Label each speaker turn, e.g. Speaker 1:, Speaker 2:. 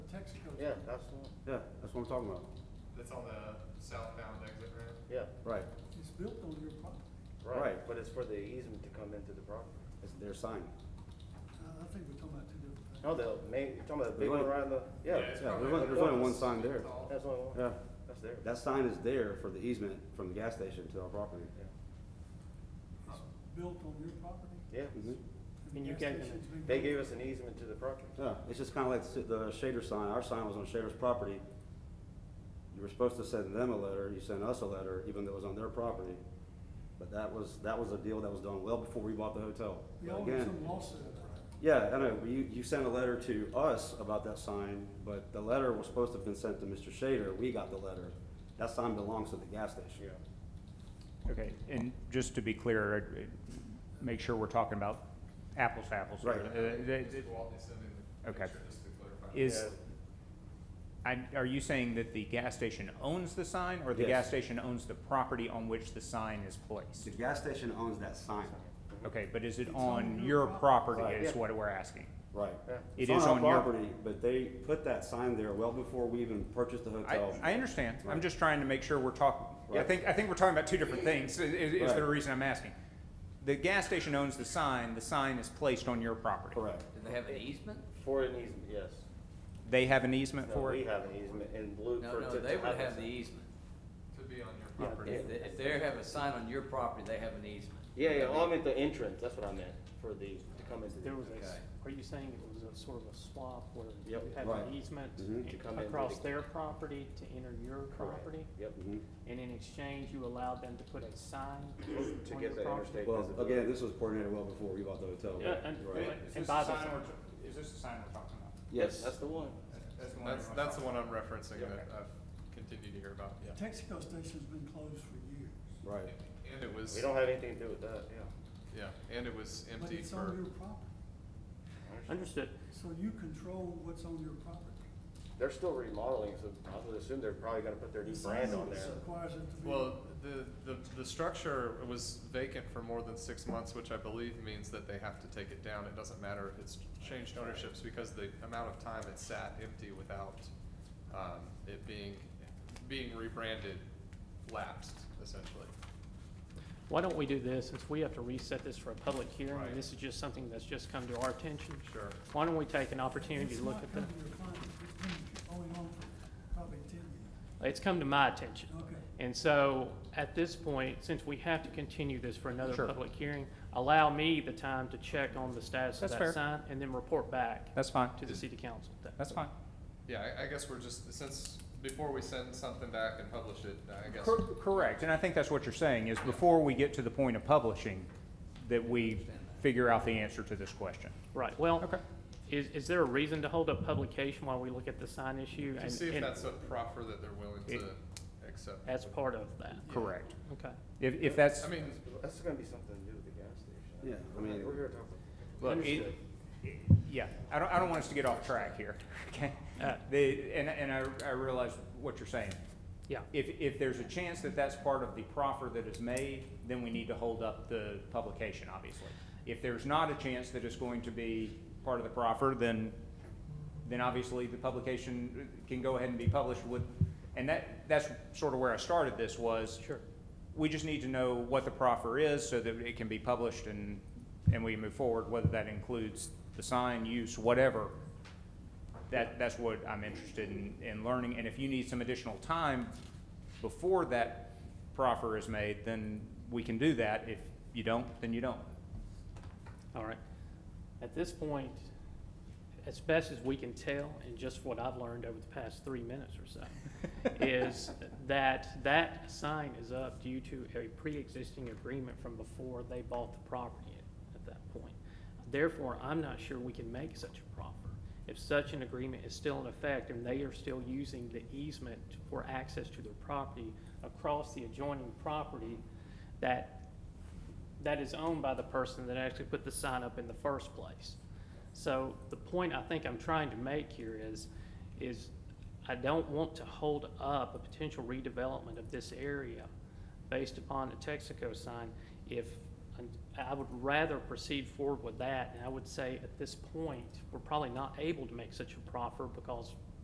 Speaker 1: Yeah, that's, the one.
Speaker 2: Yeah, that's what I'm talking about.
Speaker 3: That's on the southbound exit ramp?
Speaker 1: yeah,
Speaker 2: Right.
Speaker 4: It's built on your property.
Speaker 1: right,
Speaker 2: Right.
Speaker 1: but it's for the easement to come into the property.
Speaker 2: It's their sign.
Speaker 4: I, I think we're talking about two different things.
Speaker 1: No, Oh, the main, you're talking about the big one
Speaker 2: There's only-
Speaker 1: right on the, yeah,
Speaker 3: it's
Speaker 2: Yeah,
Speaker 3: probably
Speaker 2: there's only-
Speaker 3: like
Speaker 2: there's only
Speaker 3: a
Speaker 2: one
Speaker 3: six
Speaker 2: sign
Speaker 3: feet
Speaker 2: there.
Speaker 3: tall.
Speaker 1: that's the only one,
Speaker 2: Yeah.
Speaker 1: that's there.
Speaker 2: That sign is there for the easement from the gas station to our property.
Speaker 1: Yeah.
Speaker 4: It's built on your property.
Speaker 1: Yeah,
Speaker 2: Mhm.
Speaker 4: and
Speaker 5: And you
Speaker 4: gas
Speaker 5: gave them
Speaker 4: station's been
Speaker 1: they
Speaker 4: built-
Speaker 1: gave us an easement to the property.
Speaker 2: Yeah, it's just kinda like the the Shader sign. Our sign was on Shader's property. You were supposed to send them a letter, you sent us a letter, even though it was on their property. But that was, that was a deal that was done well before we bought the hotel.
Speaker 4: We
Speaker 2: But
Speaker 4: all
Speaker 2: again-
Speaker 4: have some lawsuit, right?
Speaker 2: Yeah, I know, you, you sent a letter to us about that sign, but the letter was supposed to have been sent to Mr. Shader, we got the letter. That sign belongs to the gas station.
Speaker 5: Okay, and just to be clear, I'd- I'd make sure we're talking about apples to apples. here.
Speaker 2: Right.
Speaker 5: Uh, they-
Speaker 3: Just walk this in and
Speaker 5: Okay.
Speaker 3: make sure, just to clarify.
Speaker 5: Is,
Speaker 1: Yeah.
Speaker 5: I, are you saying that the gas station owns the sign, or the
Speaker 2: Yes.
Speaker 5: gas station owns the property on which the sign is placed?
Speaker 2: The gas station owns that sign.
Speaker 5: Okay, but is it
Speaker 4: It's on
Speaker 5: on
Speaker 4: your
Speaker 5: your property
Speaker 2: property.
Speaker 5: is
Speaker 1: Yeah.
Speaker 5: what we're asking?
Speaker 2: Right.
Speaker 1: Yeah.
Speaker 5: It
Speaker 2: It's
Speaker 5: is
Speaker 2: our
Speaker 5: on your-
Speaker 2: Property, but they put that sign there well before we even purchased the
Speaker 5: I,
Speaker 2: hotel.
Speaker 5: I understand, I'm
Speaker 2: Right.
Speaker 5: just trying to make sure we're talking, I
Speaker 2: Right.
Speaker 5: think, I think we're talking about two different things, i- i- is, is the
Speaker 2: Right.
Speaker 5: reason I'm asking. The gas station owns the sign, the sign is placed on your property.
Speaker 2: Correct.
Speaker 6: Do they have an easement?
Speaker 1: For an easement, yes.
Speaker 5: They have an easement
Speaker 1: No,
Speaker 5: for
Speaker 1: We
Speaker 5: it?
Speaker 1: have an easement in blue
Speaker 6: No,
Speaker 1: for.
Speaker 6: no,
Speaker 1: to-
Speaker 6: they
Speaker 1: to
Speaker 6: would
Speaker 1: a
Speaker 6: have the
Speaker 1: sign.
Speaker 6: easement.
Speaker 3: To be on your
Speaker 5: Yeah,
Speaker 3: property.
Speaker 6: If, they- if they have a sign on your property, they have an easement.
Speaker 1: Yeah, yeah, oh, I meant the entrance, that's what I meant, for the, to come into the.
Speaker 7: There was a, s-
Speaker 6: Okay.
Speaker 7: are you saying it was a sort of a swap where you
Speaker 1: Yep. Mm-hmm.
Speaker 7: had
Speaker 2: Right.
Speaker 7: an easement
Speaker 2: Mhm.
Speaker 1: To come in
Speaker 7: across
Speaker 1: with the-
Speaker 7: their property to enter your
Speaker 1: Correct.
Speaker 7: property?
Speaker 1: Yep.
Speaker 2: Mhm.
Speaker 7: And in exchange, you allowed them to put a sign
Speaker 1: To
Speaker 7: on your
Speaker 1: get that
Speaker 7: property?
Speaker 1: interstate
Speaker 2: Well,
Speaker 1: visibility.
Speaker 2: again, this was coordinated well before we bought the hotel.
Speaker 7: Yeah, and-
Speaker 2: Right.
Speaker 7: Is this the by the- sign
Speaker 5: is this the sign we're talking about?
Speaker 2: Yes.
Speaker 1: That's the one.
Speaker 3: That's, that's the one I'm referencing
Speaker 1: Yeah.
Speaker 3: that I've continued to hear about, yeah.
Speaker 4: Texaco station's been closed for years.
Speaker 2: Right.
Speaker 3: And it was,
Speaker 1: We don't have anything to do with that, yeah.
Speaker 3: yeah, and it was
Speaker 4: But
Speaker 3: empty
Speaker 4: it's on
Speaker 3: for,
Speaker 4: your property,
Speaker 7: Understood.
Speaker 4: so you control what's on your property.
Speaker 1: They're still remodeling, so I would assume they're probably gonna put their new
Speaker 4: The
Speaker 1: brand
Speaker 4: sign
Speaker 1: on there.
Speaker 4: Requires it to be.
Speaker 3: well, the, the, the structure was vacant for more than six months, which I believe means that they have to take it down. It doesn't matter if it's changed ownerships because the amount of time it sat empty without, um, it being, being rebranded lapsed essentially.
Speaker 7: Why don't we do this, since we have to reset this for a public hearing,
Speaker 3: Right.
Speaker 7: and this is just something that's just come to our attention?
Speaker 3: Sure.
Speaker 7: Why don't we take an opportunity
Speaker 4: It's
Speaker 7: to look
Speaker 4: not
Speaker 7: at
Speaker 4: come
Speaker 7: the,
Speaker 4: to your client. It's been going on for probably ten years.
Speaker 7: it's come to my attention.
Speaker 4: Okay.
Speaker 7: And so, at this point, since we have to continue this for another
Speaker 5: Sure.
Speaker 7: public hearing, allow me the time to check on the status of
Speaker 5: That's
Speaker 7: that
Speaker 5: fair.
Speaker 7: sign and then report back
Speaker 5: That's fine,
Speaker 7: to the city council. That-
Speaker 5: that's fine.
Speaker 3: Yeah, I, I guess we're just, since, before we send something back and publish it, I guess.
Speaker 5: Cor- Correct, and I think that's what you're saying, is before we get to the point of publishing, that we figure out the answer to this question.
Speaker 7: Right, well,
Speaker 5: Okay.
Speaker 7: is, is there a reason to hold up publication while we look at the sign issue?
Speaker 3: To
Speaker 7: and-
Speaker 3: see if
Speaker 7: and
Speaker 3: that's a proffer that they're willing to
Speaker 5: It-
Speaker 3: accept.
Speaker 7: As part of that,
Speaker 5: Correct.
Speaker 7: okay.
Speaker 5: If, if that's,
Speaker 3: I mean,
Speaker 1: That's gonna be something to do with the gas station.
Speaker 2: Yeah, I mean-
Speaker 1: We're here to talk about.
Speaker 5: look, it-
Speaker 1: Understood.
Speaker 5: it- yeah, I don't, I don't want us to get off track here, okay?
Speaker 7: Uh,
Speaker 5: The, and, and I, I realize what you're saying.
Speaker 7: Yeah,
Speaker 5: If, if there's a chance that that's part of the proffer that is made, then we need to hold up the publication, obviously. If there's not a chance that it's going to be part of the proffer, then, then obviously the publication can go ahead and be published with, and that, that's sort of where I started this was.
Speaker 7: Sure.
Speaker 5: We just need to know what the proffer is so that it can be published and, and we move forward, whether that includes the sign use, whatever. That, that's what I'm interested in, in learning, and if you need some additional time before that proffer is made, then we can do that. If you don't, then you don't.
Speaker 7: all right. At this point, as best as we can tell, and just what I've learned over the past three minutes or so, is that that sign is up due to a pre-existing agreement from before they bought the property at- at that point. Therefore, I'm not sure we can make such a proffer. If such an agreement is still in effect and they are still using the easement for access to their property across the adjoining property, that that is owned by the person that actually put the sign up in the first place. So the point I think I'm trying to make here is, is I don't want to hold up a potential redevelopment of this area based upon a Texaco sign if, and I would rather proceed forward with that. And I would say at this point, we're probably not able to make such a proffer because